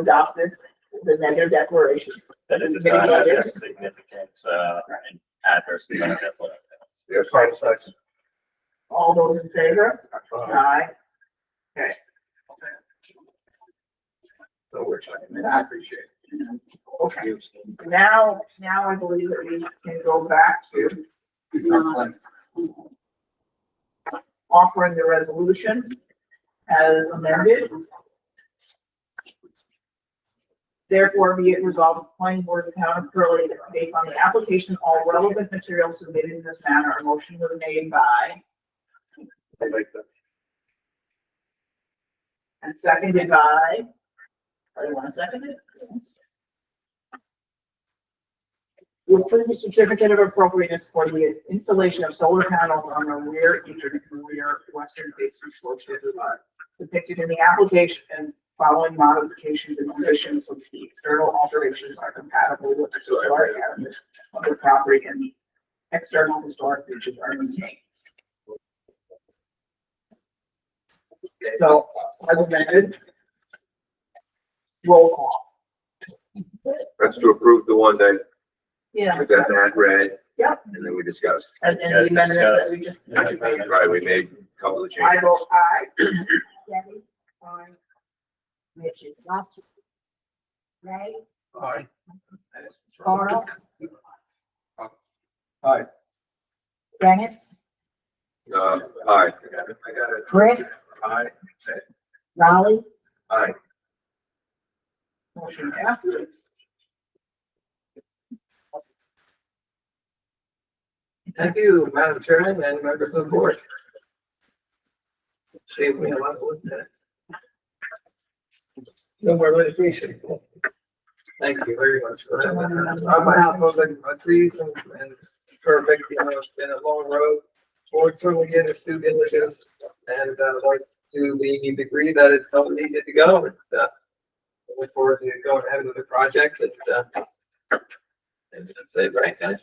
adopt this, the negative declaration. that it does Many not have a others. significant, uh, and adverse effect on the- Yes, five seconds. All those in favor? Aye. No, we're checking. I appreciate Okay, it. now, now I believe that we can go back to um, offering the resolution as amended. Therefore, be it resolved, the planning board of the town of Curly, that based on the application, all relevant materials submitted in this manner, a motion was made by I like that. and seconded by, or you want to second it? Yes. To approve the certificate of appropriateness for the installation of solar panels on the rear eastern and rear western facing slopes of the lot depicted in the application and following modifications and conditions of the external alterations are compatible with the historic heritage of the property and the external historic features are maintained. So as amended. Roll call. That's to approve the one that Yeah. we got that read. Yep. And then we discussed. And then the Yeah, amendments that we just. discuss. Right, we made a couple of I changes. vote aye. Debbie, aye. Richard Lobster. Ray, Aye. Carl, Aye. Dennis, Uh, aye. Rick, Aye. Raleigh, Aye. Motion passes. Thank you, Madam Chairman and members of the board. Save me a lot of work there. No more litigation. Thank you very much for that. On behalf of the uh, trees and, and perfect, you know, it's been a long road. Board certainly did its due diligence and, uh, like, to the degree that it's not needed to go, and, uh, look forward to going ahead with the project and, uh, and that's it, right, guys?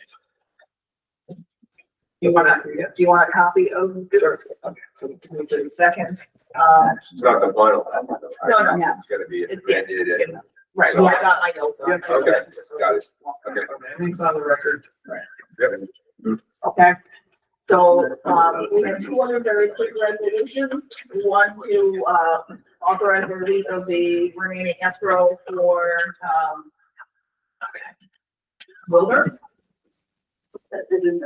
You wanna, do you want a copy of this? Okay, so we can do seconds. Uh, It's not the final. No, no, no. It's gonna be It's- amended and, right, well, I got my notes. on it. okay, got it. Okay. Everything's on the record. Yep. Okay. So, um, we have two other very quick resolutions. One to, uh, authorize the release of the remaining escrow for, um, Wilbur. That didn't,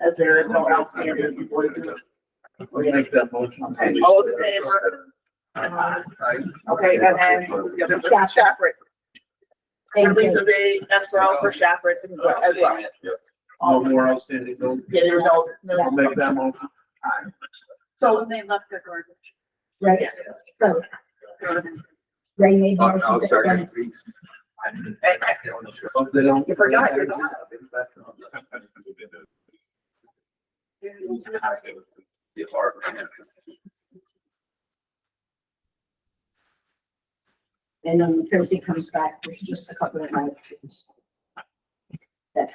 as there is no outstanding invoices. We make that motion. Okay, all those in favor? Uh, Aye. Okay, and then the other, Shafford, thank release you. of the escrow for Shafford as well. All more outstanding, bills. Yeah, there's no, no. I'll make that motion. So when they left the garbage. Ray, so Ray Oh, made I'll I'll motions, second. Dennis, Hope they don't. You forgot you're not. and then when Tracy comes back, there's just a couple of my options. That-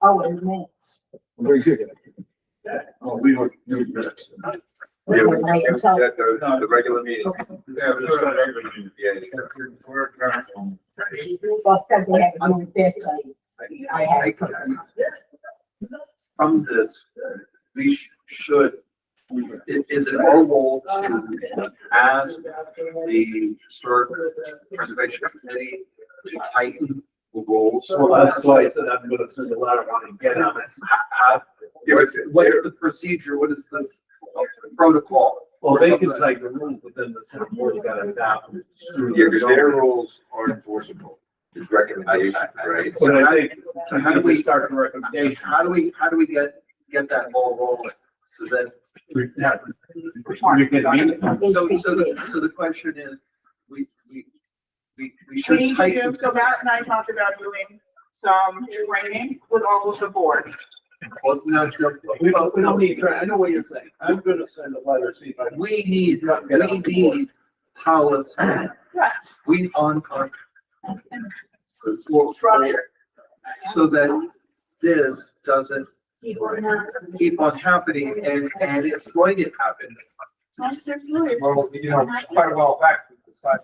Oh, and minutes. Oh, we were. you were- Yeah, Wait, wait, it was until- at the, the regular meeting. Yeah, We're current. Well, because they haven't moved this, I had it. From this, uh, we sh- should, i- is it our role to ask the historic preservation committee to tighten the rules? Well, that's why I said I'm gonna send a letter out and get on it. How- Yeah, it's- What is the procedure? What is the protocol? Well, they can take the room, but then the town board got to adopt. it. Yeah, because their rules are enforceable. There's recommendations, right? But I think, So how do we- start the And recommendation? how do we, how do we get, get that ball rolling? So that We have- we can meet. So, so, the- so the question is, we, we, we, we We should need to, tighten. so Matt and I talked about doing some training with all of the boards. Well, no, sure. We don't, we don't need, to- I know what you're saying. I'm gonna send a letter, see if I can. We need, we need policy. We on, on. Structure. So that this doesn't Keep on that. keep on happening and, and it's going to happen. That's serious. Well, you know, quite a while back, five